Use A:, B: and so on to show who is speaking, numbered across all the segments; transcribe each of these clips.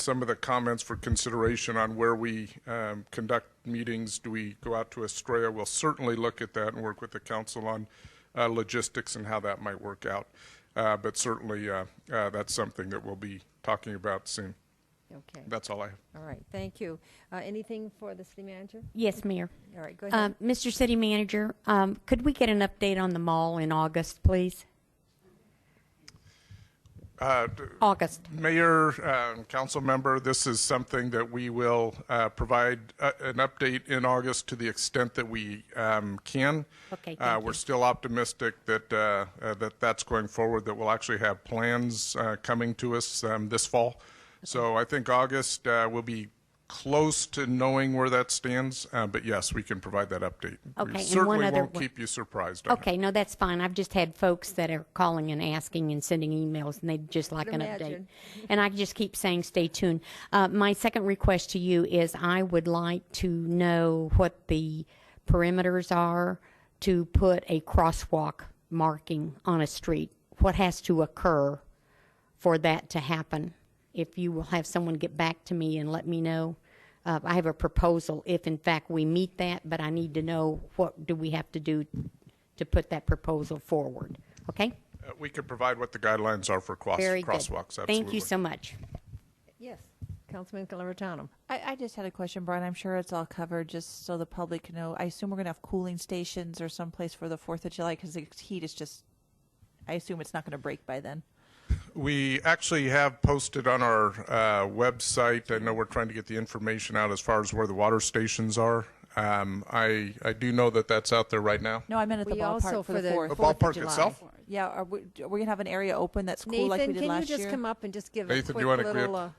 A: some of the comments for consideration on where we um, conduct meetings. Do we go out to Estrella? We'll certainly look at that and work with the council on uh, logistics and how that might work out. Uh, But certainly, uh, uh, that's something that we'll be talking about soon.
B: Okay,
A: That's all I have.
B: all right, thank you. Uh, Anything for the city manager?
C: Yes, Mayor.
B: All right, go ahead.
C: Um, Mr. City Manager, um, could we get an update on the mall in August, please? August.
A: Mayor, um, council member, this is something that we will uh, provide uh, an update in August to the extent that we um, can.
C: Okay,
A: Uh,
C: thank
A: We're
C: you.
A: still optimistic that, uh, uh, that that's going forward, that we'll actually have plans uh, coming to us um, this fall. So I think August, uh, we'll be close to knowing where that stands, uh, but yes, we can provide that update.
C: Okay, and
A: We
C: one
A: Certainly
C: other
A: won't
C: one-
A: keep you surprised on it.
C: Okay, no, that's fine. I've just had folks that are calling and asking and sending emails, and they'd just like an update.
B: imagine.
C: And I just keep saying, stay tuned. Uh, my second request to you is I would like to know what the perimeters are to put a crosswalk marking on a street. What has to occur for that to happen. If you will have someone get back to me and let me know, uh, I have a proposal if in fact we meet that, but I need to know what do we have to do to put that proposal forward. Okay?
A: Uh, We could provide what the guidelines are for cross-
C: Very good.
A: crosswalks, absolutely.
C: Thank you so much.
B: Yes, Councilman Calvertano.
D: I, I just had a question, Brian. I'm sure it's all covered, just so the public can know. I assume we're gonna have cooling stations or someplace for the Fourth of July because the heat is just. I assume it's not gonna break by then.
A: We actually have posted on our uh, website. I know we're trying to get the information out as far as where the water stations are. Um, I I do know that that's out there right now.
D: No, I meant at the
B: We also
D: ballpark
B: for
D: for the
B: the
A: The
D: fourth.
B: Fourth of
A: ballpark
B: July.
A: itself.
D: Yeah, are we, are we gonna have an area open that's cool like we
B: Nathan,
D: did
B: can you
D: last
B: just
D: year?
B: come up and just give a
A: Nathan, do
B: quick
A: you wanna go
B: little, uh,
A: up?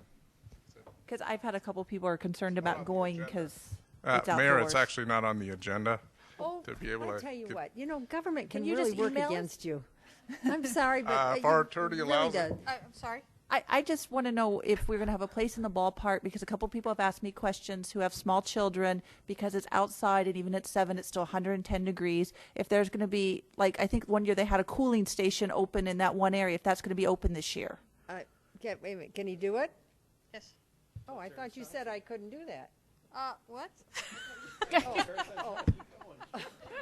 D: Because I've had a couple people are concerned about going because
A: Uh,
D: it's
A: Mayor,
D: outdoors.
A: it's actually not on the agenda.
B: oh,
A: to be able
B: I
A: to
B: tell you
A: get-
B: what, you know, government
D: Can
B: can
D: you
B: really
D: just
B: work
D: email us?
B: against you. I'm sorry, but.
A: Uh,
B: uh,
A: if
B: you
A: our attorney
B: really
A: allows
B: does.
A: it.
E: I, I'm sorry.
D: I, I just want to know if we're going to have a place in the ballpark because a couple people have asked me questions who have small children because it's outside and even at seven it's still 110 degrees. If there's going to be like I think one year they had a cooling station open in that one area. If that's going to be open this year,
B: I- Can, Uh, wait a minute, can he do it?
E: Yes.
B: Oh, I thought you said I couldn't do that.
E: Uh, what? Oh,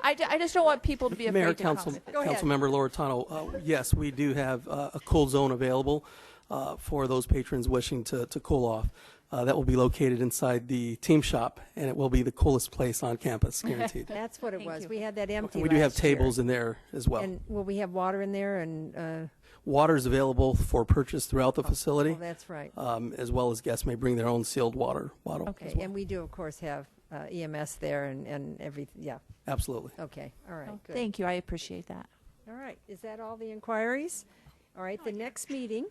D: I, ju- I just don't want people to be afraid
F: Mayor,
D: to
F: Council,
D: comment.
B: Go ahead.
F: Councilmember Loretano, uh, yes, we do have uh, a cool zone available uh, for those patrons wishing to, to cool off. Uh, That will be located inside the team shop, and it will be the coolest place on campus, guaranteed.
B: That's what it was. We had that empty
F: We do have
B: last year.
F: tables in there as well.
B: And will we have water in there and, uh,
F: Water is available for purchase throughout the facility.
B: oh, that's right.
F: um, As well as guests may bring their own sealed water bottle as
B: Okay,
F: well.
B: and we do, of course, have uh, EMS there and, and everything, yeah,
F: Absolutely.
B: okay, all right,
F: Oh,
B: good.
D: Thank you. I appreciate that.
B: All right, is that all the inquiries? All right, the next meeting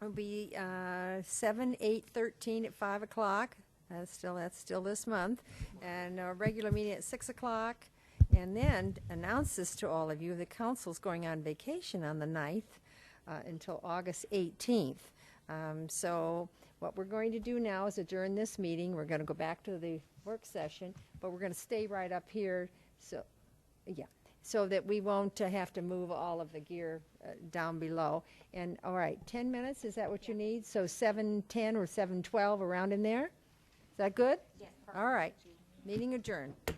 B: will be uh, 7, 8, 13 at 5 o'clock. That's still, that's still this month. And a regular meeting at 6 o'clock. And then announce this to all of you, the council's going on vacation on the 9th uh, until August 18th. Um, So what we're going to do now is adjourn this meeting. We're going to go back to the work session, but we're going to stay right up here. So, yeah, so that we won't uh, have to move all of the gear uh, down below. And, all right, 10 minutes, is that what you need? So 7:10 or 7:12, around in there? Is that good? Yes. All right, meeting adjourned.